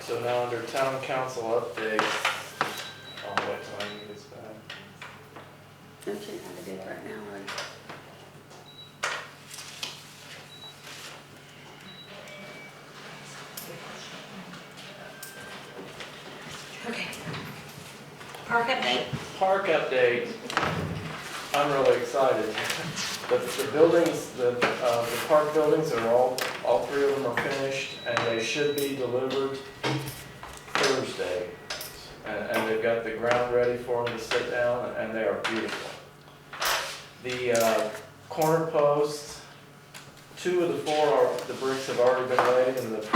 So now under town council updates, I'll wait till Amy gets back. Don't you have a date right now, or? Okay. Park update? Park update, I'm really excited. The, the buildings, the, uh, the park buildings are all, all three of them are finished and they should be delivered Thursday. And, and they've got the ground ready for them to sit down and they are beautiful. The, uh, corner posts, two of the four are, the bricks have already been laid and the,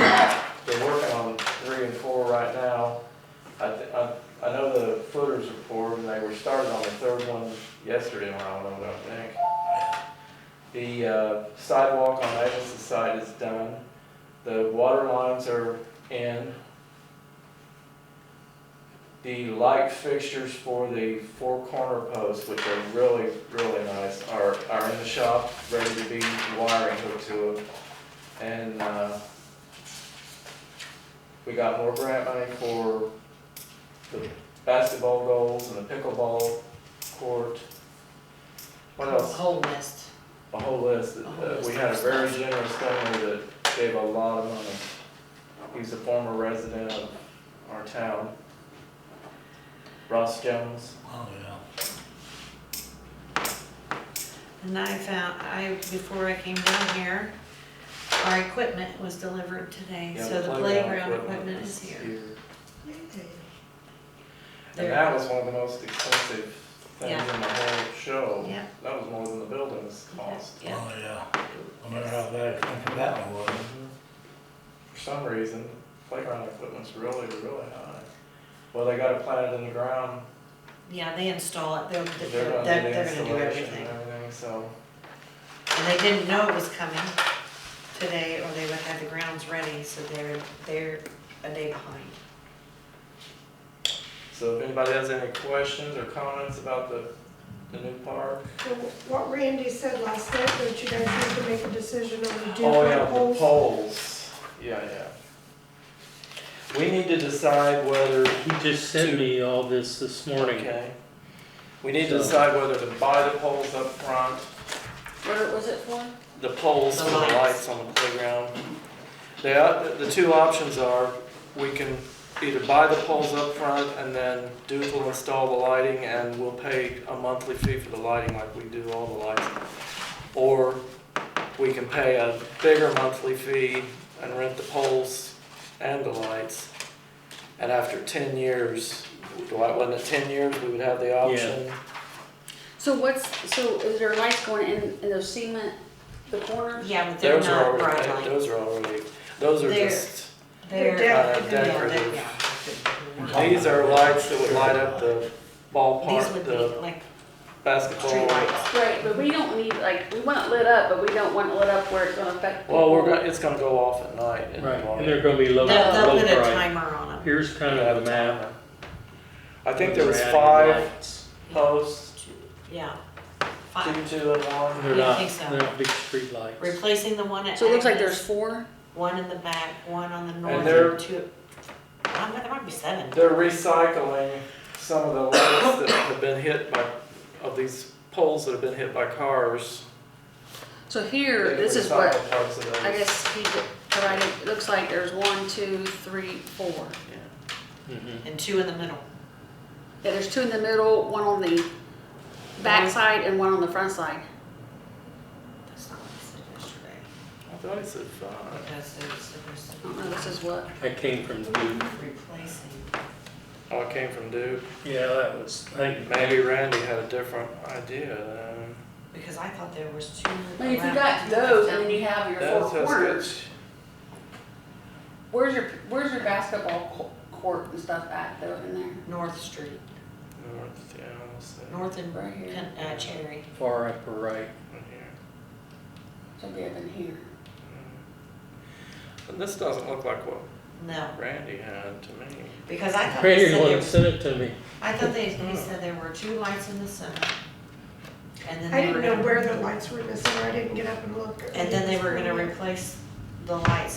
they're working on three and four right now. I, th- I I know the footers are poor, and they were started on the third one yesterday when I went over, I think. The uh, sidewalk on Agnes's side is done. The water lines are in. The light fixtures for the four corner posts, which are really, really nice, are, are in the shop, ready to be wiring hooked to them. And uh, we got more grant money for the basketball goals and the pickleball court. What else? Whole list. a whole list. A Uh, whole list We had a of very stuff. generous donor that gave a lot of money. He's a former resident of our town. Ross Jones. Oh, yeah. And I found, I, before I came down here, our equipment was delivered today, Yeah, so the playground equipment is here. And There- that was one of the most expensive things Yeah. in the whole show. Yeah. That was more than the building's cost. Yeah. Oh, yeah. I remember how bad expensive that one was. For some reason, playground equipment's really, really high. Well, they got it planted in the ground. Yeah, they install it, they're, They're they're, gonna do they're the they're gonna do installation everything. and everything, so. And they didn't know it was coming today, or they would have the grounds ready, so they're, they're a day behind. So if anybody has any questions or comments about the, the new park? So What Randy said last night, that you guys need to make a decision on the Oh, yeah, different the poles. poles, yeah, yeah. We need to decide whether, He just sent me all this this morning. okay. We need to decide whether to buy the poles up front, Where was it for? the poles The for the lights. lights on the playground. The, o- the two options are, we can either buy the poles up front and then Duke will install the lighting and we'll pay a monthly fee for the lighting like we do all the lights. Or we can pay a bigger monthly fee and rent the poles and the lights. And after ten years, Dwight, wasn't it ten years, we would have the option? So what's, so is there lights going in, in those cement, the corners? Yeah, but they're Those are not bright already, light. those are already, those are They're- just. They're, uh, They're yeah, decorative. they're, Decorative. yeah. These are lights that would light up the These ballpark, would be the like basketball. street lights. Right, but we don't need, like, we want it lit up, but we don't want it lit up where it's gonna affect. Well, we're people. gonna, it's gonna go off at night in the Right, and morning. they're gonna be low, They'll, they'll low put a bright. timer on them. Here's kind You have of a a map. timer. I think there was They're adding five lights. posts, Yeah. two, Fine. two and one. They're Yeah, I not, think so. they're not big street lights. Replacing the one at So it looks like there's Agnes, four? one in the back, one on the north, they're- and two, I don't know, there might be seven. They're recycling some of the lights that have been hit by, of these poles that have been hit by cars. So here, They this is recycle what, parts of I those. guess he provided, it looks like there's one, two, three, four. Mhm. And two in the middle. Yeah, there's two in the middle, one on the back side and one on the front side. That's not what I said yesterday, I thought it said five. because it was, it was I don't know, this is what, That came from Duke. replacing. Oh, it came from Duke. Yeah, that was, I think, Maybe Randy had a different idea then. Because I thought there was two. I mean, if you around. got those and then you have your That's- four that's good. corners. Where's your Where's your basketball co- court and stuff at though in there? North Street, North, yeah, I'll say. North and, Right here. Ken- uh, Cherry. far upper right. Right here. So they have in here. And this doesn't look like what No, Randy had to me. because I thought they Randy, said you there, wanna send it to me? I thought they, he said there were two lights in the center. And then I they were didn't know gonna, where the lights were missing, I didn't get up and look. and then they were gonna replace the lights